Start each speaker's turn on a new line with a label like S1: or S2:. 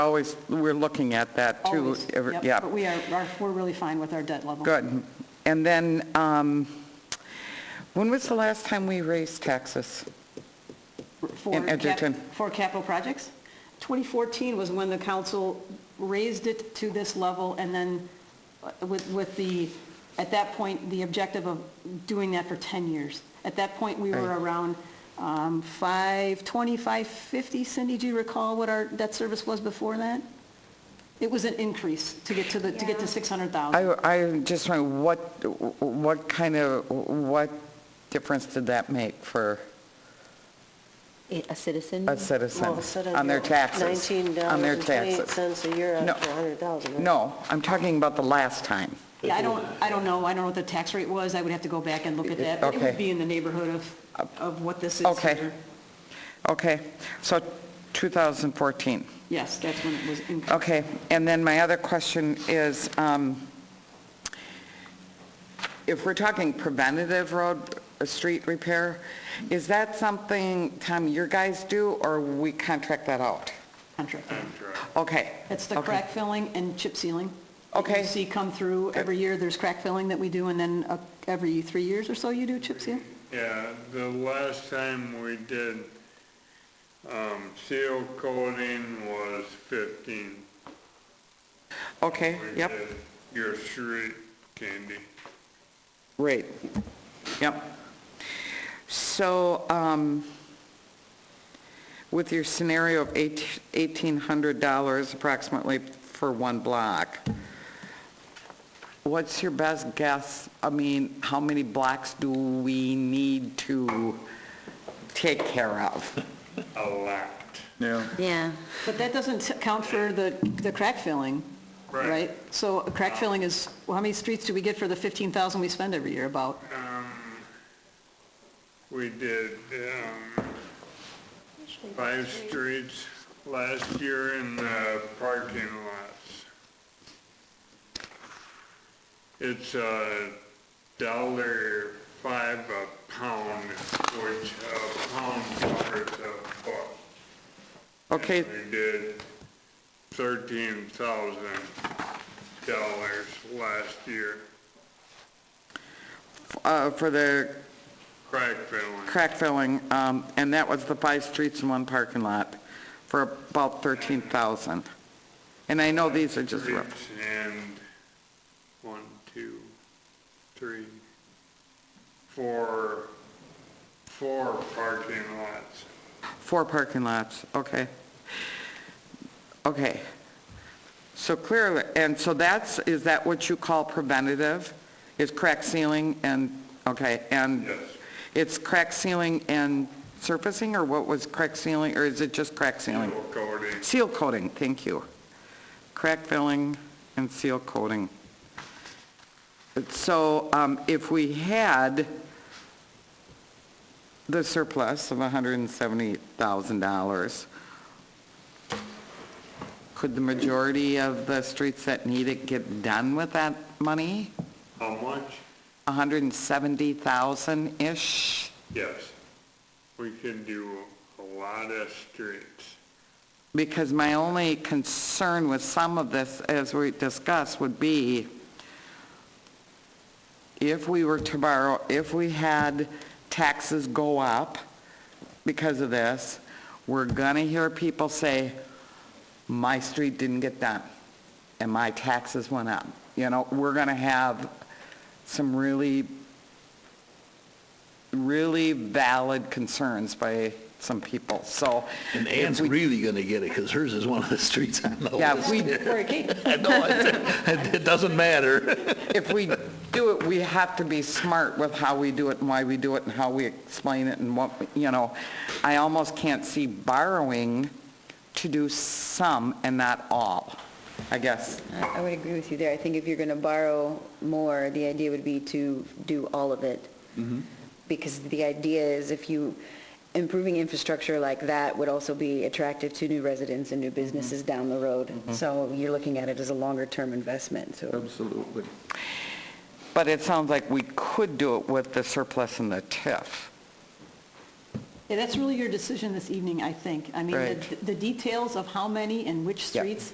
S1: Always, we're looking at that too.
S2: Always.
S1: Every-
S2: Yep,
S1: Yeah.
S2: But we are, are- we're really fine with our debt level.
S1: Good. And then, um, when was the last time we raised taxes?
S2: For
S1: And
S2: cap-
S1: Edgerton.
S2: For capital projects. 2014 was when the council raised it to this level, and then uh, with, with the, at that point, the objective of doing that for 10 years. At that point, we were
S1: Right.
S2: around um, 520, 550. Cindy, do you recall what our debt service was before that? It was an increase to get to the, to get to
S3: Yeah.
S2: 600,000.
S4: Uh-huh.
S1: I, I just wondering, what, what kind of, what difference did that make for
S3: A citizen?
S1: a citizen
S4: Mm-hmm. Well, instead of
S1: on their
S4: your
S1: taxes? On their taxes?
S4: $19.28 a year
S1: No.
S4: after 100,000. right?
S1: No, I'm talking about the last time.
S2: Yeah, I don't, I don't know, I don't know what the tax rate was, I would have to go back and look at that. It
S1: Okay. Uh,
S2: would be in the neighborhood of, of what this is.
S1: Okay.
S2: here.
S1: Okay, so 2014.
S2: Yes, that's when it was increased.
S1: Okay, and then my other question is, um, if we're talking preventative road, uh, street repair, is that something, Tom, your guys do, or we contract that out?
S2: contract.
S1: Okay.
S2: It's the
S1: okay.
S2: crack filling and chip sealing. that
S1: Okay.
S2: You see come through every year, there's crack filling that we do, and then uh, every three years or so you do chip seal?
S5: Yeah, the last time we did, um, seal coating was fifteen.
S1: Okay,
S5: We
S1: yep,
S5: did Your street candy.
S1: great, yep. So, um, with your scenario of eight- $1,800 approximately for one block, what's your best guess? I mean, how many blocks do we need to take care of?
S5: A lot.
S6: Yeah.
S3: Yeah.
S2: But that doesn't count for the, the crack filling,
S5: Right.
S2: right? So a crack filling is, well, how many streets do we get for the 15,000 we spend every year about?
S5: We did, um, five streets last year in the parking lots. It's a dollar five a pound, which a pound covers a buck.
S1: Okay,
S5: And We did thirteen thousand dollars last year,
S1: uh, for the
S5: crack filling.
S1: crack filling, um, and that was the five streets and one parking lot for about 13,000. And I know these are just rough.
S5: Streets And one, two, three, four, four parking lots.
S1: Four parking lots, okay. Okay. So clearly, and so that's, is that what you call preventative? Is crack sealing and, okay, and?
S5: Yes.
S1: It's crack sealing and surfacing, or what was crack sealing, or is it just crack sealing?
S5: Seal coating,
S1: Seal coating, thank you. Crack filling and seal coating. So um, if we had the surplus of $170,000, could the majority of the streets that need it get done with that money?
S5: how much?
S1: 170,000-ish?
S5: Yes. We can do a lot of streets.
S1: Because my only concern with some of this, as we discussed, would be if we were to borrow, if we had taxes go up because of this, we're going to hear people say, my street didn't get done, and my taxes went up. You know, we're going to have some really, really valid concerns by some people, so.
S6: And
S1: if
S6: Ann's
S1: we
S6: really going to get it because hers is one of the streets on the list.
S1: Yeah, if we,
S6: I know, it it doesn't matter.
S1: if we do it, we have to be smart with how we do it and why we do it and how we explain it and what, we- you know, I almost can't see borrowing to do some and not all, I guess.
S7: I I would agree with you there. I think if you're going to borrow more, the idea would be to do all of it. Because the idea is if you, improving infrastructure like that would also be attractive to new residents and new businesses down the road. So you're looking at it as a longer-term investment, so.
S6: Absolutely.
S1: But it sounds like we could do it with the surplus and the TIF.
S2: Yeah, that's really your decision this evening, I think. I mean,
S1: Right.
S2: the- the details of how many and which
S1: Yeah.
S2: streets